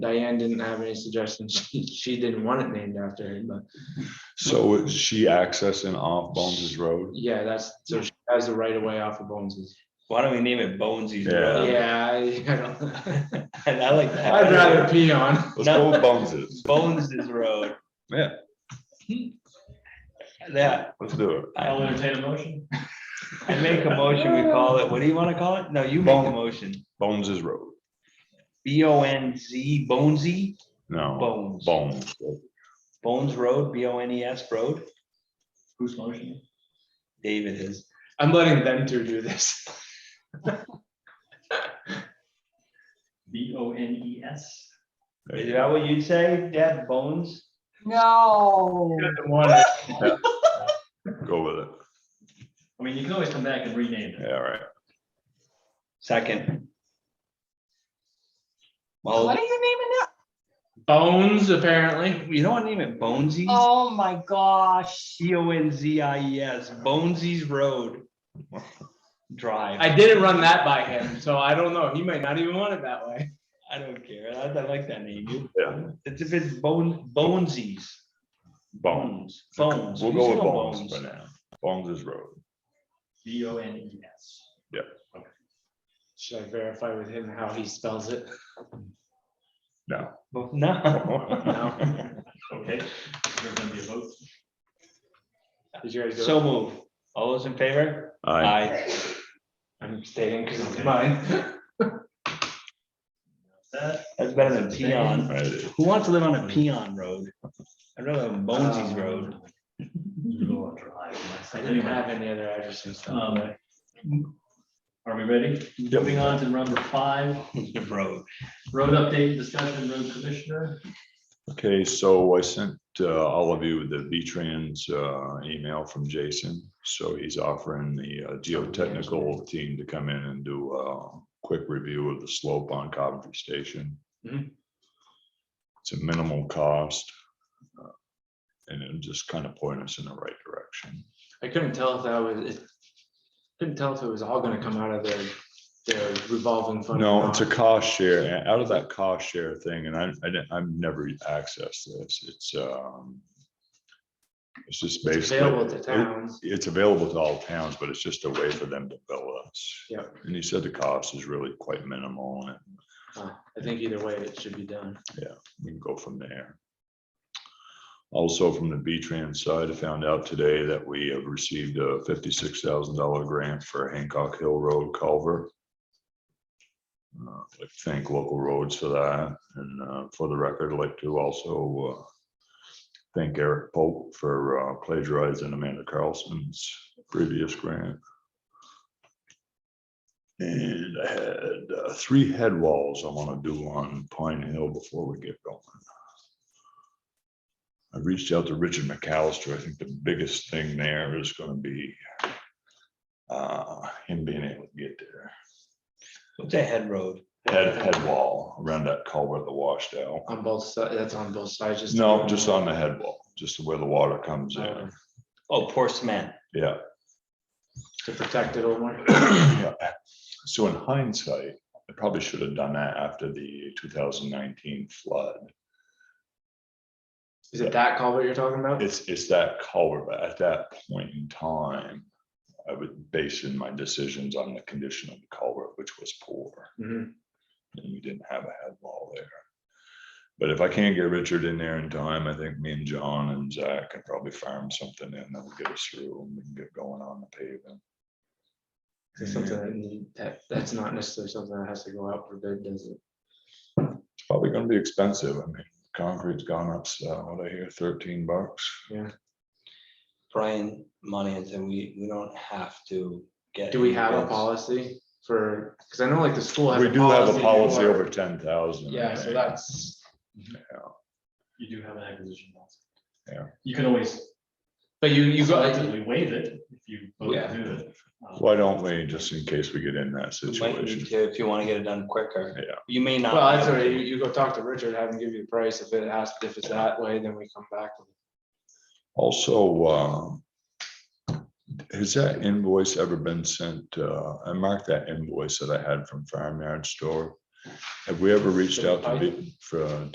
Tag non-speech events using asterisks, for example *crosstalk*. Diane didn't have any suggestions. *laughs* She, she didn't want it named after her, but So is she accessing off Bones's Road? yeah, that's, so she has the right of way off of Bones's. Why don't we name it Bonesy's Yeah. Road? Yeah, I, I don't, *laughs* And *laughs* I like that. I'd rather pee on. Let's go with Bones's. Bonesy's Road. Hmm. Yeah, Yeah, let's do it. I'll entertain a motion. I make a motion, we call it, what do you want to call it? No, you make the Bone. motion. Bones's Road. B O N Z, Bonesy, No, Bones, Bones. Bones Road, B O N E S Road. Who's motion? David is. I'm letting them two do this. *laughs* B O N E S. There Is you that what you'd say, Dad? Bones? No, Go with it. I mean, you can always come back and rename Yeah, all right. Second. what Well, are you naming it? Bones, apparently. you don't want to name it Bonesies, Oh my gosh. C O N Z I E S, Bonesies Road. Drive. I didn't run that by him, so I don't know. He might not even want it that way. I don't care. I, I like that name. You- Yeah, It's if it's bone, Bonesies. Bones. Bones. We'll We go say with Bones for now. Bones's Road. B O N E S. Should I verify with him how he spells it? No. No. *laughs* No? Okay, there's gonna be a vote. Did you guys do it? So move. All those in favor? I, Aye. I'm staying because it's mine. That's better than peon. Who wants to live on a peon road? I'd rather live on Bonesies Um, Uh. Road. *laughs* *laughs* Mm-hmm. I didn't have any other addresses. Um, Are we ready? Moving on to number five, Road. road update, discussion, road commissioner. Okay, so I sent uh, all of you the V-Trans uh, email from Jason. So he's offering the uh, geotechnical team to come in and do a quick review of the slope on Coventry Station. Mhm. It's a minimal cost. uh, And it'll just kind of point us in the right direction. I couldn't tell if that was, it- couldn't tell if it was all gonna come out of their, their revolving fund. or No, not. it's a cost share, and out of that cost share thing, and I, I didn't, I've never accessed this, it's, um. It's just It's Available basically, to it- towns. it's available to all towns, but it's just a way for them to bill us. Yep. And he said the cost is really quite minimal, and Uh, I think either way, it should be done. we can go from there. Also, from the B-Trans side, I found out today that we have received a fifty-six thousand dollar grant for Hancock Hill Road culvert. Uh, I'd like to Thank local roads for that, and uh, for the record, I'd like to also uh, thank Eric Pope for uh, plagiarizing Amanda Carlson's previous grant. And I had uh, three head walls I want to do on Pine Hill before we get going. I reached out to Richard McAllister. I think the biggest thing there is going to be uh, him being able to get there. What's a head road? Head, head wall around that culvert, the washdown. On both sides, that's on both sides. just- No, just on the head wall, just where the water comes Uh, in. Oh, poor cement. Yeah. *clears throat* To protect it a *coughs* little more. Yeah. So in hindsight, I probably should have done that after the 2019 flood. Is it that culvert you're talking about? It's, it's that color, but at that point in time, I was basing my decisions on the condition of the color, which was poor, Mhm. and we didn't have a head wall there. But if I can't get Richard in there in time, I think me and John and Zach can probably farm something in that will get us through and we can get going on the paving. Is it something that need- that, that's not necessarily something that has to go out for bid, does it? It's probably gonna be expensive. I mean, concrete's gone up, so what I hear, thirteen bucks. Brian Monahan said we, we don't have to get. Do we have a bids. policy for, because I know like the school. has We do have a policy for- over ten thousand. Yeah, so that's, You do have an acquisition policy. Yeah. You can always but you, you go, selectively waive it if you vote Yeah. to do it. Um, Why don't we, just in case we get in that We might situation? need to, if you want to get it done quicker. Yeah. You may not. well, that's all right, you, you go talk to Richard, have him give you the price, if it has, if it's that way, then we come back. with it. Also, um, has that invoice ever been sent? uh, I marked that invoice that I had from Farm Yard Store. Have we ever reached out to, B- for, uh,